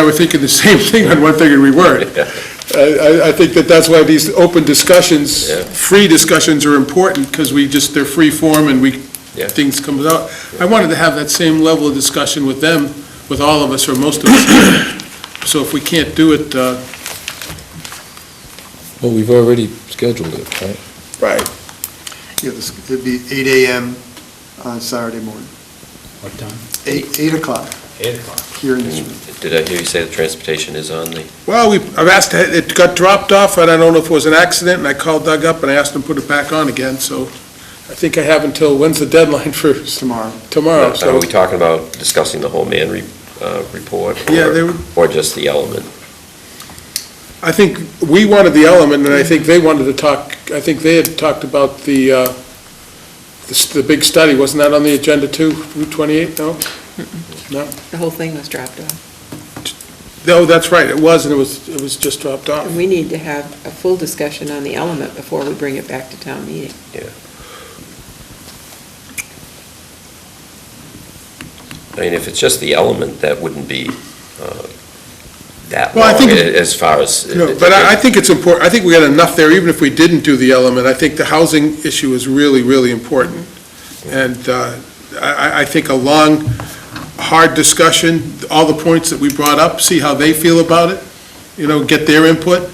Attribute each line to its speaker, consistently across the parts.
Speaker 1: I were thinking the same thing on one thing in reword. I, I- I think that that's why these open discussions,
Speaker 2: Yeah.
Speaker 1: free discussions are important, because we just, they're free form and we,
Speaker 2: Yeah.
Speaker 1: things come out. I wanted to have that same level of discussion with them, with all of us or most of us. So if we can't do it, uh,
Speaker 3: Well, we've already scheduled it, right?
Speaker 1: Right.
Speaker 4: Yeah, this- it'd be eight AM on Saturday morning,
Speaker 5: What time?
Speaker 4: eight, eight o'clock
Speaker 5: Eight o'clock.
Speaker 4: here in this room.
Speaker 2: Did I hear you say the transportation is on the,
Speaker 1: Well, we, I've asked, it got dropped off, and I don't know if it was an accident, and I called Doug up and I asked him to put it back on again, so I think I have until, when's the deadline for?
Speaker 4: Tomorrow.
Speaker 1: Tomorrow,
Speaker 2: are
Speaker 1: Oh, so,
Speaker 2: we talking about discussing the whole man re- uh, report?
Speaker 1: Yeah,
Speaker 2: or-
Speaker 1: they were-
Speaker 2: Or just the element?
Speaker 1: I think we wanted the element, and I think they wanted to talk, I think they had talked about the, uh, the, s- the big study, wasn't that on the agenda too, Route 28, no? No,
Speaker 6: The whole thing was dropped off.
Speaker 1: no, that's right, it was, and it was, it was just dropped off.
Speaker 6: And we need to have a full discussion on the element before we bring it back to town meeting.
Speaker 2: I mean, if it's just the element, that wouldn't be uh, that
Speaker 1: Well, I
Speaker 2: long
Speaker 1: think-
Speaker 2: a- as far as.
Speaker 1: No, but I, I think it's important, I think we got enough there, even if we didn't do the element, I think the housing issue is really, really important. And uh, I, I- I think a long, hard discussion, all the points that we brought up, see how they feel about it, you know, get their input.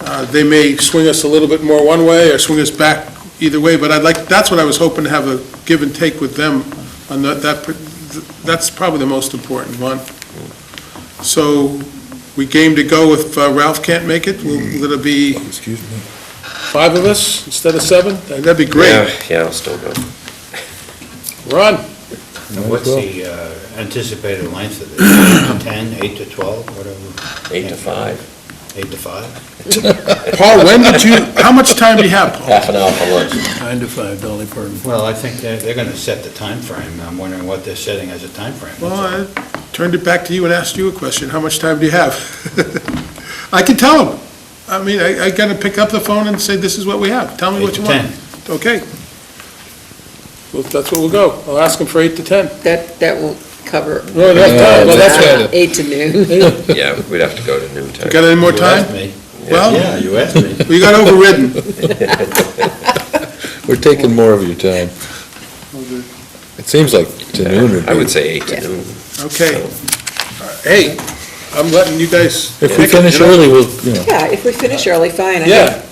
Speaker 1: Uh, They may swing us a little bit more one way or swing us back either way, but I'd like, that's what I was hoping to have a give and take with them on that, that, pr- that's probably the most important one. So we game to go if uh, Ralph can't make it, will will it be
Speaker 3: Excuse me.
Speaker 1: five of us instead of seven? Uh, That'd be
Speaker 2: Yeah,
Speaker 1: great.
Speaker 2: yeah, I'll still go.
Speaker 1: Ron,
Speaker 3: Might
Speaker 5: What's
Speaker 3: as well.
Speaker 5: the uh, anticipated length of this? Ten, eight to twelve, whatever?
Speaker 2: Eight to five,
Speaker 5: Eight to five?
Speaker 1: Paul, when did you, how much time do you have, Paul?
Speaker 2: half an hour for lunch.
Speaker 7: Nine to five, Dolly Parton.
Speaker 5: Well, I think they're, they're gonna set the time frame. I'm wondering what they're setting as a time timeframe.
Speaker 1: Well, I turned it back to you and asked you a question. How much time do you have? I can tell him. I mean, I, I gotta pick up the phone and say, this is what we have. Tell me
Speaker 5: Eight
Speaker 1: what
Speaker 5: to
Speaker 1: you want.
Speaker 5: ten.
Speaker 1: Okay. Well, that's what we'll go. I'll ask him for eight to 10.
Speaker 6: That, that won't cover.
Speaker 1: Well, that's,
Speaker 3: Yeah,
Speaker 1: well, that's
Speaker 3: that's-
Speaker 1: right.
Speaker 6: uh, Eight to noon.
Speaker 2: Yeah, we'd have to go to noon time.
Speaker 1: Got any more
Speaker 5: You asked
Speaker 1: time? Oh.
Speaker 5: me.
Speaker 1: Well,
Speaker 5: Yeah, you asked me.
Speaker 1: we got overridden.
Speaker 3: We're taking more of your time.
Speaker 4: Okay.
Speaker 3: It seems like to noon would be.
Speaker 2: I would say eight to noon.
Speaker 1: Okay. Hey, I'm letting you guys.
Speaker 3: If we
Speaker 1: pick it, you
Speaker 3: finish
Speaker 1: know?
Speaker 3: early, we'll, you know,
Speaker 6: Yeah, if we finish early, fine. I think
Speaker 1: Yeah.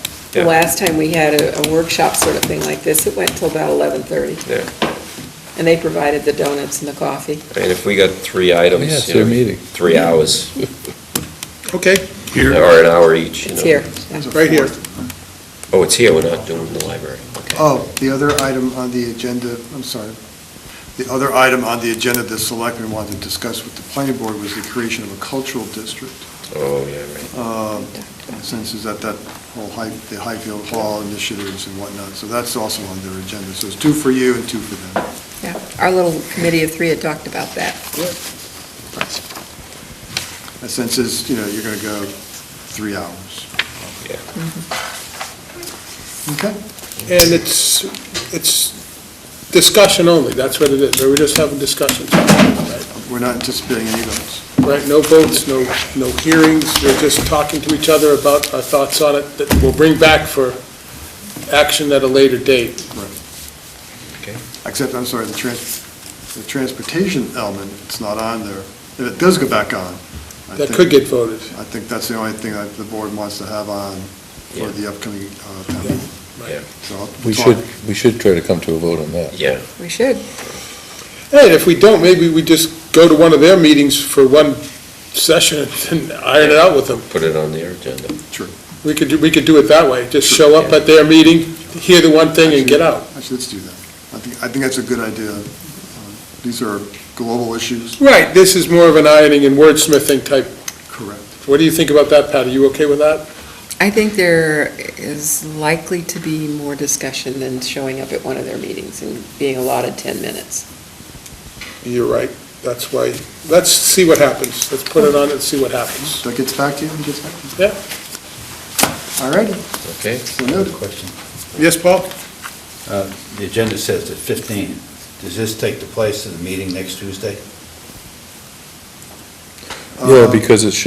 Speaker 6: The last time we had a a workshop sort of thing like this, it went till about eleven-thirty.
Speaker 2: Yeah.
Speaker 6: And they provided the donuts and the coffee.
Speaker 2: And if we got three items.
Speaker 3: Yeah, it's
Speaker 2: you
Speaker 3: their
Speaker 2: know,
Speaker 3: meeting.
Speaker 2: Three hours,
Speaker 1: Okay,
Speaker 2: or
Speaker 1: here,
Speaker 2: an hour each. you
Speaker 6: It's
Speaker 2: know.
Speaker 6: here.
Speaker 1: right here.
Speaker 2: Oh, it's here, we're not doing the library. Okay.
Speaker 4: Oh, the other item on the agenda, I'm sorry, the other item on the agenda the selectmen wanted to discuss with the planning board was the creation of a cultural district.
Speaker 2: Oh, yeah, right.
Speaker 4: um, Since it's at that whole High, the Highfield Hall initiatives and whatnot, so that's also on their agenda. So it's two for you and two for them.
Speaker 6: Yeah, Our little committee of three had talked about that.
Speaker 4: And Since it's, you know, you're going to go three hours.
Speaker 2: Yeah.
Speaker 4: Okay.
Speaker 1: And it's, it's discussion only, that's what it is, we're just having discussions.
Speaker 4: We're not anticipating any of those.
Speaker 1: Right, no votes, no, no hearings, we're just talking to each other about our thoughts on it that we'll bring back for action at a later date.
Speaker 4: Except, I'm sorry, the trans, the transportation element, it's not on there. If it does go back on. I
Speaker 1: That
Speaker 4: think-
Speaker 1: could get voted.
Speaker 4: I think that's the only thing that the board wants to have on for the upcoming uh, town meeting.
Speaker 2: Yeah.
Speaker 4: So I'll
Speaker 3: we
Speaker 4: talk.
Speaker 3: should, we should try to come to a vote on that.
Speaker 2: Yeah,
Speaker 6: We should.
Speaker 1: Hey, and if we don't, maybe we just go to one of their meetings for one session and iron it out with them.
Speaker 2: put it on their agenda.
Speaker 1: We could, do- we could do it that way, just show up at their meeting, hear the one thing and get out.
Speaker 4: Actually, let's do that. I think, I think that's a good idea. Um, These are global issues.
Speaker 1: Right, this is more of an ironing and wordsmithing type.
Speaker 4: Correct.
Speaker 1: What do you think about that, Pat? Are you okay with that?
Speaker 6: I think there is likely to be more discussion than showing up at one of their meetings and being allotted 10 minutes.
Speaker 1: You're right. That's why, let's see what happens. Let's put it on and see what happens.
Speaker 4: That gets back to you, it gets back to you.
Speaker 1: Yeah.
Speaker 4: All righty,
Speaker 2: Okay.
Speaker 4: so noted.
Speaker 5: Question.
Speaker 1: Yes, Paul?
Speaker 5: Uh, The agenda says the fifteen. Does this take the place of the meeting next Tuesday?
Speaker 3: Yeah,
Speaker 4: Uh,
Speaker 3: because it should